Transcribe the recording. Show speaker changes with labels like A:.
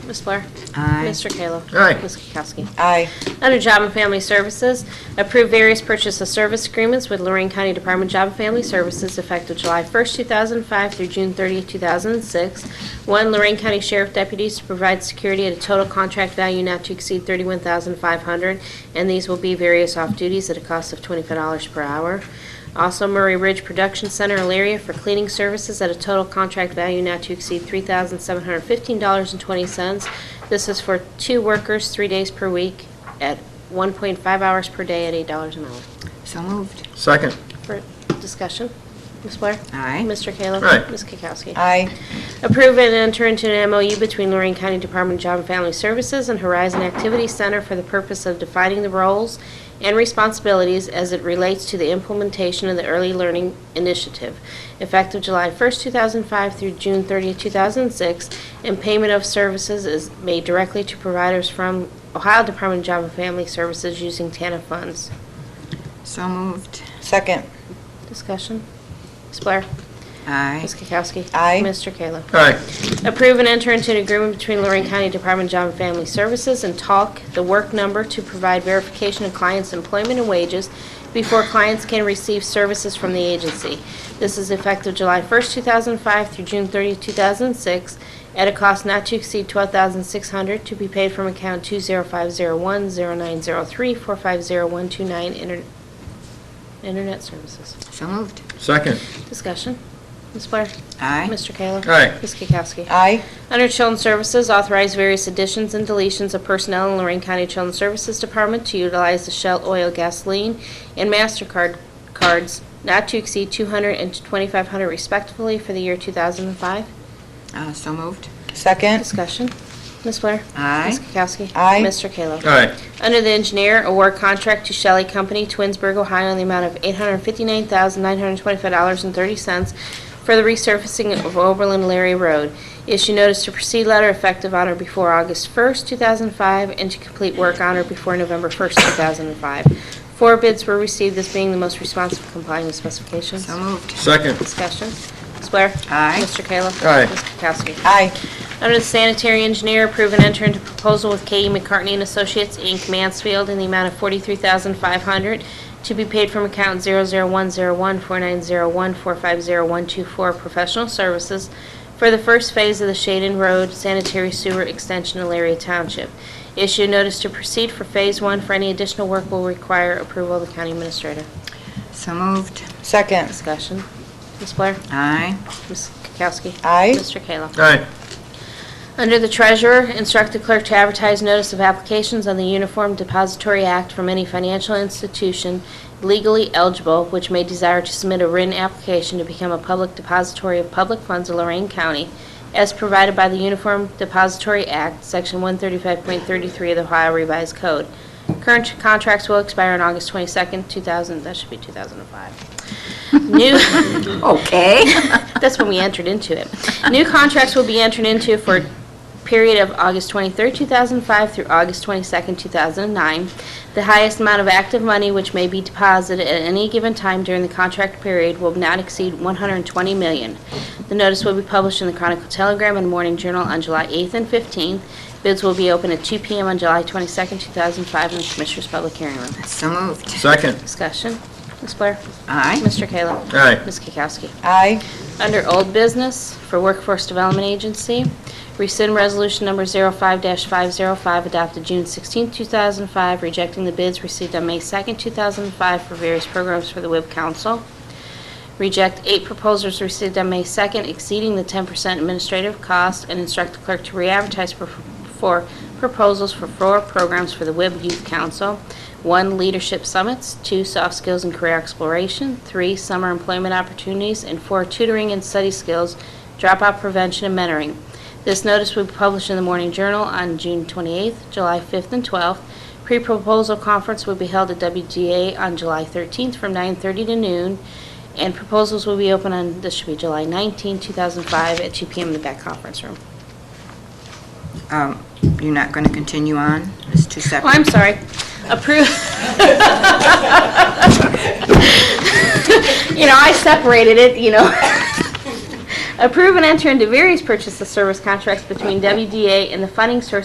A: Ms. Blair?
B: Aye.
A: Mr. Kayla?
C: Aye.
A: Ms. Kukowski?
D: Aye.
A: Under Job and Family Services, approve various purchase of service agreements with Lorraine County Department of Job and Family Services effective July 1st, 2005 through June 30th, 2006. One, Lorraine County Sheriff deputies to provide security at a total contract value not to exceed $31,500, and these will be various off-duties at a cost of $25 per hour. Also, Murray Ridge Production Center, Elaria, for cleaning services at a total contract value not to exceed $3,715.20. This is for two workers, three days per week, at 1.5 hours per day at $8 an hour.
B: So moved.
C: Second.
A: For discussion, Ms. Blair?
B: Aye.
A: Mr. Kayla?
C: Aye.
A: Ms. Kukowski?
D: Aye.
A: Approve and enter into an MOU between Lorraine County Department of Job and Family Services and Horizon Activity Center for the purpose of defining the roles and responsibilities as it relates to the implementation of the Early Learning Initiative, effective July 1st, 2005 through June 30th, 2006, and payment of services is made directly to providers from Ohio Department of Job and Family Services using TANA funds.
B: So moved.
D: Second.
A: Discussion? Ms. Blair?
B: Aye.
A: Ms. Kukowski?
D: Aye.
A: Mr. Kayla?
C: Aye.
A: Approve and enter into an agreement between Lorraine County Department of Job and Family Services and Talk, the work number, to provide verification of clients' employment and wages before clients can receive services from the agency. This is effective July 1st, 2005 through June 30th, 2006, at a cost not to exceed $12,600 to be paid from account 205010903450129 inter- Internet Services.
B: So moved.
C: Second.
A: Discussion. Ms. Blair?
B: Aye.
A: Mr. Kayla?
C: Aye.
A: Ms. Kukowski?
D: Aye.
A: Under Children's Services, authorize various additions and deletions of personnel in Lorraine County Children's Services Department to utilize the Shell Oil Gasoline and MasterCard cards not to exceed 200 and 2,500 respectively for the year 2005.
B: Uh, So moved.
D: Second.
A: Discussion. Ms. Blair?
B: Aye.
A: Ms. Kukowski?
D: Aye.
A: Mr. Kayla?
C: Aye.
A: Under the engineer, award contract to Shelley Company, Twinsburg, Ohio, in the amount of $859,925.30 for the resurfacing of Oberlin Larry Road. Issue notice to proceed letter effective on or before August 1st, 2005, and to complete work on or before November 1st, 2005. Four bids were received, this being the most responsive complying with specifications.
B: So moved.
C: Second.
A: Discussion. Ms. Blair?
B: Aye.
A: Mr. Kayla?
C: Aye.
A: Ms. Kukowski?
D: Aye.
A: Under the sanitary engineer, approve and enter into proposal with K.E. McCartney and Associates, Inc., Mansfield, in the amount of $43,500 to be paid from account 001014901450124 professional services for the first phase of the Shaden Road sanitary sewer extension in Elaria Township. Issue notice to proceed for Phase 1 for any additional work will require approval of the county administrator.
B: So moved.
D: Second.
A: Discussion. Ms. Blair?
B: Aye.
A: Ms. Kukowski?
D: Aye.
A: Mr. Kayla?
C: Aye.
A: Under the treasurer, instruct the clerk to advertise notice of applications on the Uniform Depository Act from any financial institution legally eligible which may desire to submit a written application to become a public depository of public funds of Lorraine County as provided by the Uniform Depository Act, Section 135.33 of the Ohio Revised Code. Current contracts will expire on August 22nd, 2000, that should be 2005. New,
B: Okay.
A: that's when we entered into it. New contracts will be entered into for a period of August 23, 2005 through August 22, 2009. The highest amount of active money which may be deposited at any given time during the contract period will not exceed 120 million. The notice will be published in the Chronicle Telegram and Morning Journal on July 8th and 15th. Bids will be open at 2 PM on July 22, 2005 in the Commissioners' Public Hearing Room.
B: So moved.
C: Second.
A: Discussion. Ms. Blair?
B: Aye.
A: Mr. Kayla?
C: Aye.
A: Ms. Kukowski?
D: Aye.
A: Under Old Business for Workforce Development Agency, rescind Resolution Number 05-505 adopted June 16, 2005, rejecting the bids received on May 2, 2005 for various programs for the WIB Council. Reject eight proposals received on May 2nd exceeding the 10% administrative cost and instruct the clerk to re-advertise for- for proposals for four programs for the WIB Youth Council. One, leadership summits. Two, soft skills and career exploration. Three, summer employment opportunities. And four, tutoring and study skills, dropout prevention, and mentoring. This notice will be published in the Morning Journal on June 28th, July 5th, and 12th. Pre-proposal conference will be held at WGA on July 13th from 9:30 to noon, and proposals will be open on, this should be July 19, 2005, at 2 PM in the back conference room.
B: Um, You're not going to continue on? It's two
A: Oh,
B: separate.
A: I'm sorry. Approve. You know, I separated it, you know. Approve and enter into various purchase of service contracts between WDA and the funding source